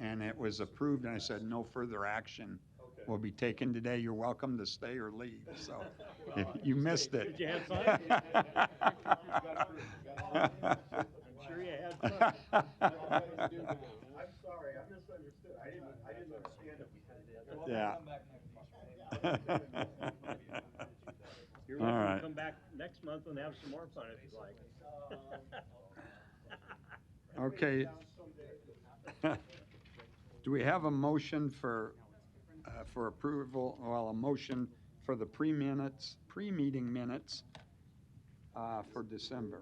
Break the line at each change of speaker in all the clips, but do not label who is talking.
and it was approved, and I said, no further action
Okay.
will be taken today. You're welcome to stay or leave, so if
Well,
Oh, you
it's
missed
great.
it.
Did you have fun? I'm sure you had
I'm
fun.
sorry, I misunderstood. I didn't, I didn't understand it.
Yeah.
You're
All
welcome
right.
to come back next month and have some more fun if you'd like.
Okay. Do we have a motion for, uh, for approval, well, a motion for the pre-minutes, pre-meeting minutes uh, for December?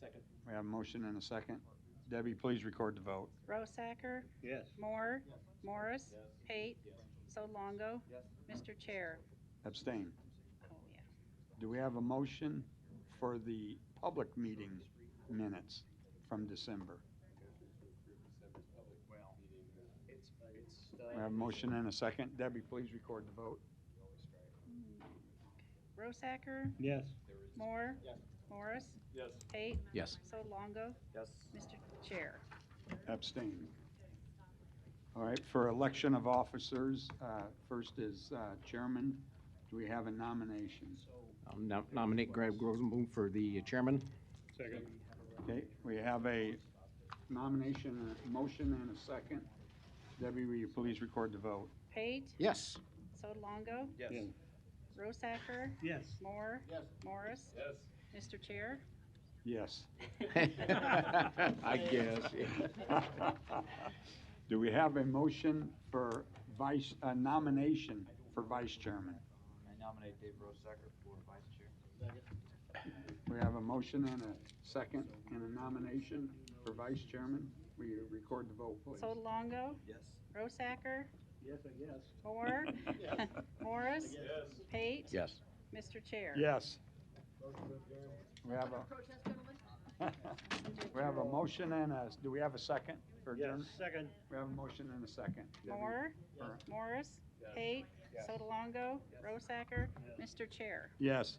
Second.
We have a motion and a second. Debbie, please record the vote.
Rosacker,
Yes.
Moore, Morris, Pate, Solongo, Mr. Chair.
Abstain.
Oh, yeah.
Do we have a motion for the public meeting minutes from December? We have a motion and a second. Debbie, please record the vote.
Rosacker,
Yes.
Moore, Morris,
Yes.
Pate,
Yes.
Solongo,
Yes.
Mr. Chair.
Abstain. All right, for election of officers, uh, first is uh, chairman. Do we have a nomination?
I'll Um, nom- nominate Greg Rosenblum for the chairman.
Second.
Okay, we have a nomination, a motion and a second. Debbie, will you please record the vote?
Pate,
Yes.
Solongo,
Yes.
Rosacker,
Yes.
Moore, Morris,
Yes.
Mr. Chair.
Yes.
I guess.
Do we have a motion for vice, a nomination for vice chairman?
I nominate Dave Rosacker for vice chair.
We have a motion and a second and a nomination for vice chairman. Will you record the vote, please?
Solongo,
Yes.
Rosacker,
Yes, I guess.
Moore, Morris, Pate,
Yes.
Mr. Chair.
Yes. We have a. We have a motion and a, do we have a second for
Yes,
adjournment?
second.
We have a motion and a second. Debbie?
Moore,
Yes.
Morris, Pate, Solongo, Rosacker, Mr. Chair.
Yes.